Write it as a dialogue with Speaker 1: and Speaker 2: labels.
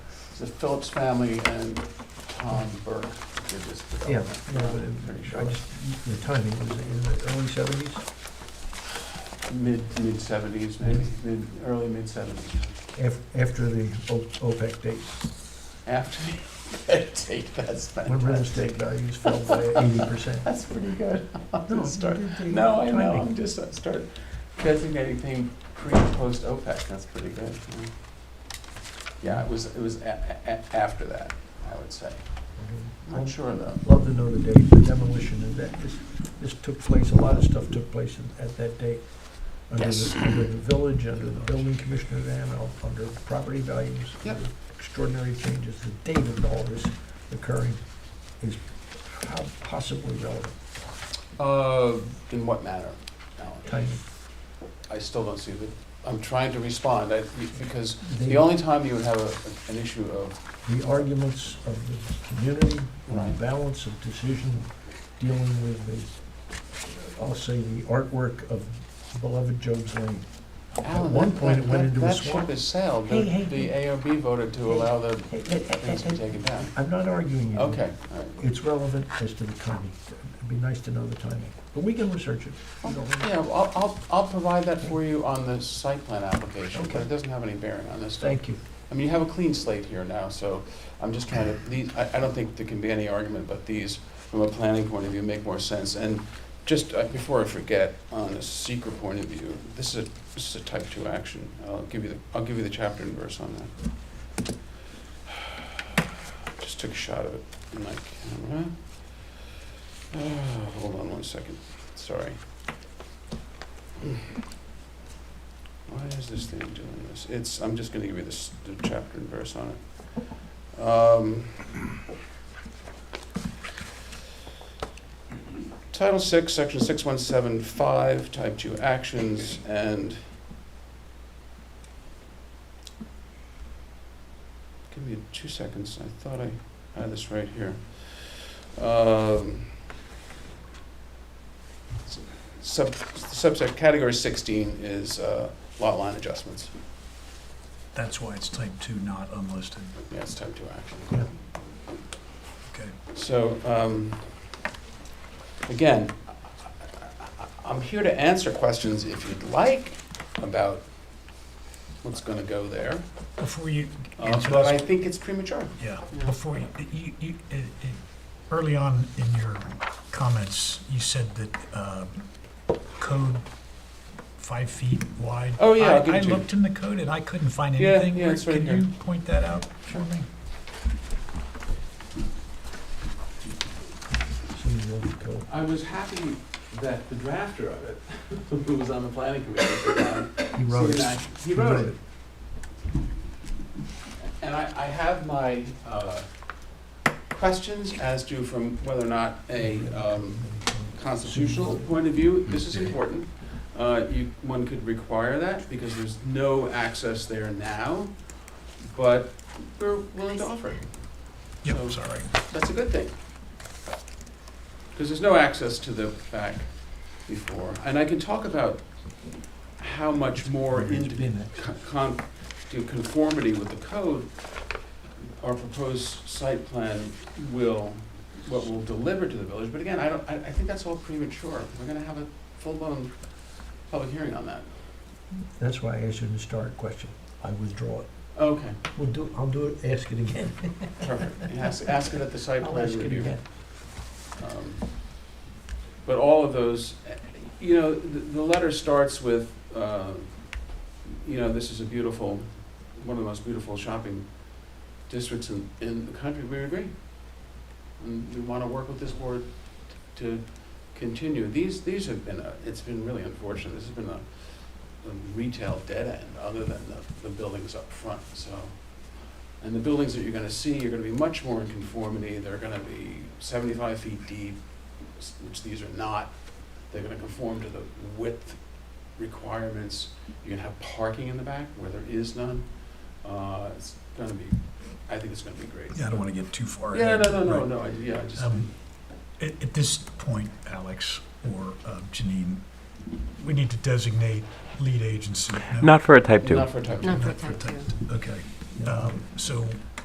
Speaker 1: the Phillips family and Tom Burke did this
Speaker 2: Yeah,
Speaker 1: development.
Speaker 2: no, but
Speaker 1: I'm pretty
Speaker 2: it-
Speaker 1: sure.
Speaker 2: I just, the timing, was it in the early seventies?
Speaker 1: Mid, mid seventies, maybe, mid, early mid seventies.
Speaker 2: After the O- OPEC date,
Speaker 1: After the take, that's
Speaker 2: when real estate
Speaker 1: fantastic.
Speaker 2: values fell by eighty percent.
Speaker 1: That's pretty good. I'm
Speaker 2: No,
Speaker 1: gonna start,
Speaker 2: the- the
Speaker 1: no, I know,
Speaker 2: timing.
Speaker 1: I'm just, I start designating thing pre and post OPEC, that's pretty good. yeah. Yeah, it was, it was a- a- a- after that, I would say. Not sure though.
Speaker 2: Love to know the date, the demolition of that, this, this took place, a lot of stuff took place in- at that date. Under
Speaker 1: Yes.
Speaker 2: the, under the village, under the building commissioner then, uh, under property values.
Speaker 1: Yep.
Speaker 2: under Extraordinary changes, the date of all this occurring is how possibly relevant,
Speaker 1: Uh, in what manner, Alan?
Speaker 2: timing.
Speaker 1: I still don't see the, I'm trying to respond, I, because
Speaker 2: They-
Speaker 1: the only time you would have a, an issue of,
Speaker 2: the arguments of the community, and
Speaker 1: Right.
Speaker 2: the balance of decision dealing with the, I'll say, the artwork of beloved Job's Lane. At
Speaker 1: Alan,
Speaker 2: one
Speaker 1: that-
Speaker 2: point, it
Speaker 1: that-
Speaker 2: went
Speaker 1: that-
Speaker 2: into a
Speaker 1: that ship
Speaker 2: swamp.
Speaker 1: has sailed, the,
Speaker 2: Hey, hey,
Speaker 1: the ARB voted to allow the
Speaker 2: Hey, hey, hey,
Speaker 1: things to be
Speaker 2: hey, hey,
Speaker 1: taken down.
Speaker 2: I'm not arguing you.
Speaker 1: Okay, all right.
Speaker 2: It's relevant as to the timing. It'd be nice to know the timing, but we can research it. We don't really-
Speaker 1: Yeah, well, I'll, I'll, I'll provide that for you on the site plan application, but
Speaker 2: Okay.
Speaker 1: it doesn't have any bearing on this.
Speaker 2: Thank you.
Speaker 1: I mean, you have a clean slate here now, so I'm just trying to, these, I, I don't think there can be any argument, but these, from a planning point of view, make more sense. And just uh, before I forget, on a secret point of view, this is a, this is a type two action. I'll give you the, I'll give you the chapter and verse on that. Just took a shot of it in my camera. Ah, hold on one second, sorry. Why is this thing doing this? It's, I'm just gonna give you this, the chapter and verse on it. Um, Title six, section six one seven five, type two actions, and give me two seconds, I thought I had this right here. Um, s- Sub, subset, category sixteen is, uh, lot line adjustments.
Speaker 3: That's why it's type two, not unlisted.
Speaker 1: Yeah, it's type two action.
Speaker 2: Yeah.
Speaker 3: Okay.
Speaker 1: So, um, again, I- I- I'm here to answer questions if you'd like about what's gonna go there.
Speaker 3: Before you
Speaker 1: uh,
Speaker 3: answer
Speaker 1: But I
Speaker 3: this,
Speaker 1: think it's premature.
Speaker 3: yeah,
Speaker 1: Yeah.
Speaker 3: before you, you, you, it- it- early on in your comments, you said that, uh, code five feet wide.
Speaker 1: Oh, yeah,
Speaker 3: I-
Speaker 1: I'll give it to you.
Speaker 3: I looked in the code and I couldn't find
Speaker 1: Yeah,
Speaker 3: anything.
Speaker 1: yeah,
Speaker 3: Where-
Speaker 1: it's right here.
Speaker 3: Can you point that out for me?
Speaker 2: See you on the code.
Speaker 1: I was happy that the drafter of it, who was on the planning committee at the time,
Speaker 2: He wrote it.
Speaker 1: He wrote it. And I, I have my, uh, questions as to from whether or not a, um, constitutional point of view, this is important. Uh, you, one could require that because there's no access there now, but we're willing to offer it. So-
Speaker 3: Yep, sorry.
Speaker 1: That's a good thing. Because there's no access to the back before. And I can talk about how much more
Speaker 2: It's
Speaker 1: into
Speaker 2: been it.
Speaker 1: con- con, to conformity with the code, our proposed site plan will, what will deliver to the village, but again, I don't, I, I think that's all premature. We're gonna have a full-blown public hearing on that.
Speaker 2: That's why I asked you to start question. I withdraw it.
Speaker 1: Okay,
Speaker 2: We'll do, I'll do it, ask it again.
Speaker 1: perfect. And Ask, ask it at the site
Speaker 2: I'll
Speaker 1: plan
Speaker 2: ask it
Speaker 1: review.
Speaker 2: again.
Speaker 1: Um, But all of those, eh, you know, the, the letter starts with, uh, you know, this is a beautiful, one of the most beautiful shopping districts in, in the country, we agree. And we wanna work with this board to continue. These, these have been, a- it's been really unfortunate, this has been a, a retail dead end, other than the, the buildings up front, so. And the buildings that you're gonna see are gonna be much more in conformity, they're gonna be seventy-five feet deep, s- which these are not. They're gonna conform to the width requirements. You're gonna have parking in the back where there is none. Uh, it's gonna be, I think it's gonna be great.
Speaker 3: Yeah, I don't want to get too far.
Speaker 1: Yeah,
Speaker 3: ahead.
Speaker 1: no, no, no,
Speaker 3: Right.
Speaker 1: no, I- yeah, I just,
Speaker 3: Um, At, at this point, Alex or uh, Janine, we need to designate lead agency. No?
Speaker 4: Not for a type two.
Speaker 1: not for a type two.
Speaker 5: Not for
Speaker 3: Not for
Speaker 5: type
Speaker 3: type
Speaker 5: two.
Speaker 3: Okay,
Speaker 2: Yeah.
Speaker 3: um, so